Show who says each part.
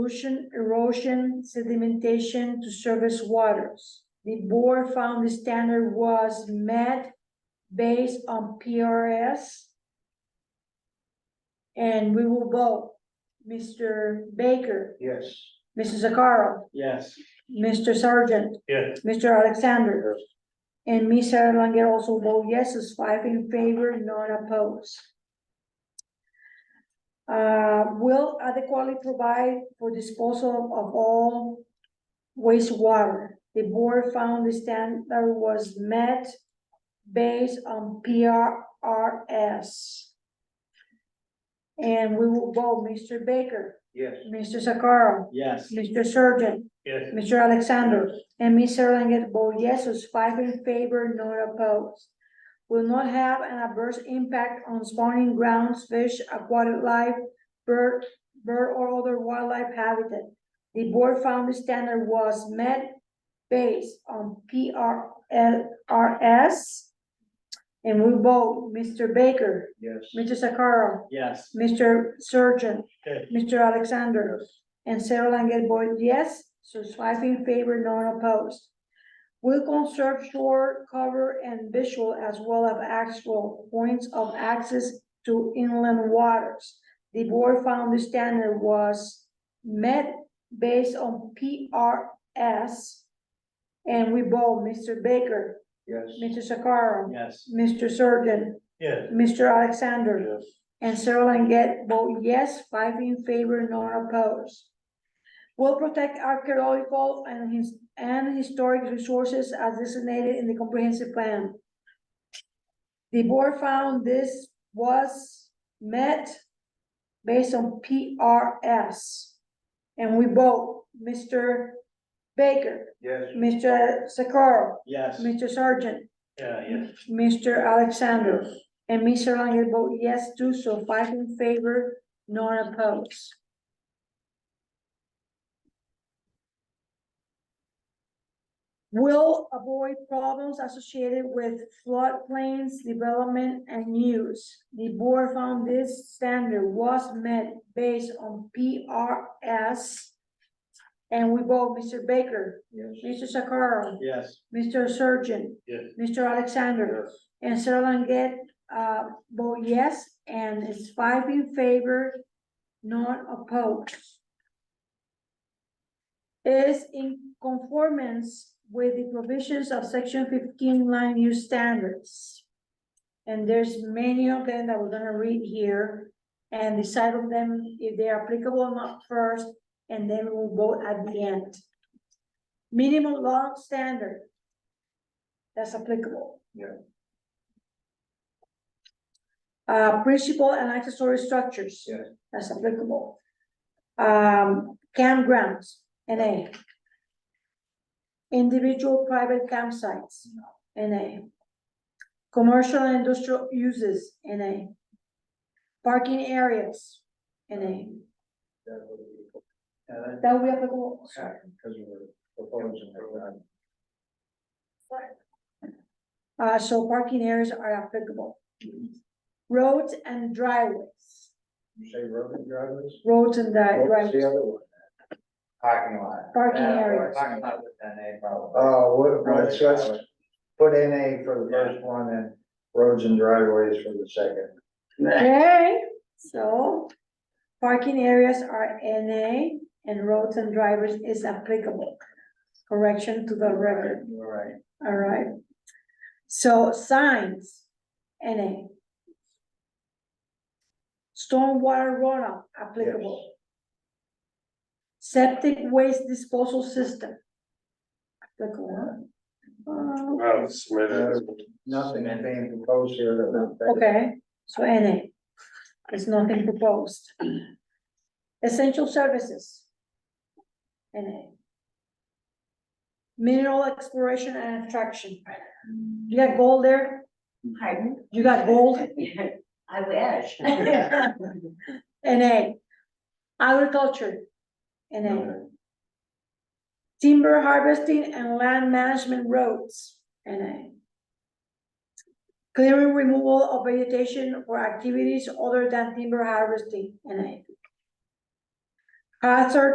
Speaker 1: pollution, erosion, sedimentation to surface waters. The board found the standard was met based on PRS. And we will vote. Mr. Baker,
Speaker 2: Yes.
Speaker 1: Mrs. Zakaro,
Speaker 2: Yes.
Speaker 1: Mr. Sargent,
Speaker 2: Yes.
Speaker 1: Mr. Alexander. And Ms. Erlanger also vote yes, is five in favor, none opposed. Uh, will adequately provide for disposal of all wastewater. The board found the standard was met based on PRRS. And we will vote Mr. Baker,
Speaker 2: Yes.
Speaker 1: Mr. Sakara,
Speaker 2: Yes.
Speaker 1: Mr. Surgeon,
Speaker 2: Yes.
Speaker 1: Mr. Alexander and Ms. Erlanger vote yes, is five in favor, none opposed. Will not have an adverse impact on spawning grounds, fish, aquatic life, bird, bird or other wildlife habitat. The board found the standard was met based on P R L R S. And we vote Mr. Baker,
Speaker 2: Yes.
Speaker 1: Mr. Sakara,
Speaker 2: Yes.
Speaker 1: Mr. Surgeon,
Speaker 2: Okay.
Speaker 1: Mr. Alexander. And Sarah Langell votes yes, so it's five in favor, none opposed. Will conserve shore cover and visual as well as actual points of access to inland waters. The board found the standard was met based on PRS. And we vote Mr. Baker,
Speaker 2: Yes.
Speaker 1: Mr. Sakara,
Speaker 2: Yes.
Speaker 1: Mr. Surgeon,
Speaker 2: Yes.
Speaker 1: Mr. Alexander.
Speaker 2: Yes.
Speaker 1: And Sarah Langett vote yes, five in favor, none opposed. Will protect archaeological and his, and historic resources as designated in the comprehensive plan. The board found this was met based on PRS. And we vote Mr. Baker,
Speaker 2: Yes.
Speaker 1: Mr. Sakara,
Speaker 2: Yes.
Speaker 1: Mr. Sargent,
Speaker 2: Yeah, yes.
Speaker 1: Mr. Alexander and Mr. Erlanger vote yes too, so five in favor, none opposed. Will avoid problems associated with floodplains, development and use. The board found this standard was met based on PRS. And we vote Mr. Baker,
Speaker 2: Yes.
Speaker 1: Mr. Sakara,
Speaker 2: Yes.
Speaker 1: Mr. Surgeon,
Speaker 2: Yes.
Speaker 1: Mr. Alexander. And Sarah Longet, uh, vote yes, and it's five in favor, none opposed. Is in conformance with the provisions of section fifteen land use standards. And there's many of them that we're gonna read here and decide on them if they're applicable or not first, and then we'll vote at the end. Minimum law standard. That's applicable. Uh, principal and accessory structures.
Speaker 2: Yeah.
Speaker 1: That's applicable. Um, campgrounds, NA. Individual private campsites, NA. Commercial and industrial uses, NA. Parking areas, NA.
Speaker 2: That would be- Yeah, that-
Speaker 1: That will be applicable,
Speaker 2: yeah, because we're proposing that.
Speaker 1: uh, so parking areas are applicable. Roads and driveways,
Speaker 2: You say road and driveways?
Speaker 1: roads and dri-
Speaker 2: What's the
Speaker 1: driveways,
Speaker 2: other one?
Speaker 3: Parking lot.
Speaker 1: parking areas.
Speaker 3: Parking lot with an A problem.
Speaker 2: Oh, what,
Speaker 3: Let's
Speaker 2: what's
Speaker 3: just
Speaker 2: that?
Speaker 3: put in A for the first one and roads and driveways for the second.
Speaker 1: Okay, so parking areas are NA and roads and drivers is applicable. Correction to the record,
Speaker 3: You're right.
Speaker 1: all right. So signs, NA. Stormwater runoff applicable. Septic waste disposal system. Applicable. Uh,
Speaker 4: Wow, Smithers.
Speaker 3: Nothing being proposed here that would. affect-
Speaker 1: Okay, so NA, there's nothing proposed. Essential services. NA. Mineral exploration and extraction. You got gold there?
Speaker 5: Pardon?
Speaker 1: You got gold?
Speaker 5: I wish.
Speaker 1: NA. Agriculture. NA. Timber harvesting and land management roads. NA. Clearing removal of vegetation for activities other than timber harvesting. NA. Hazard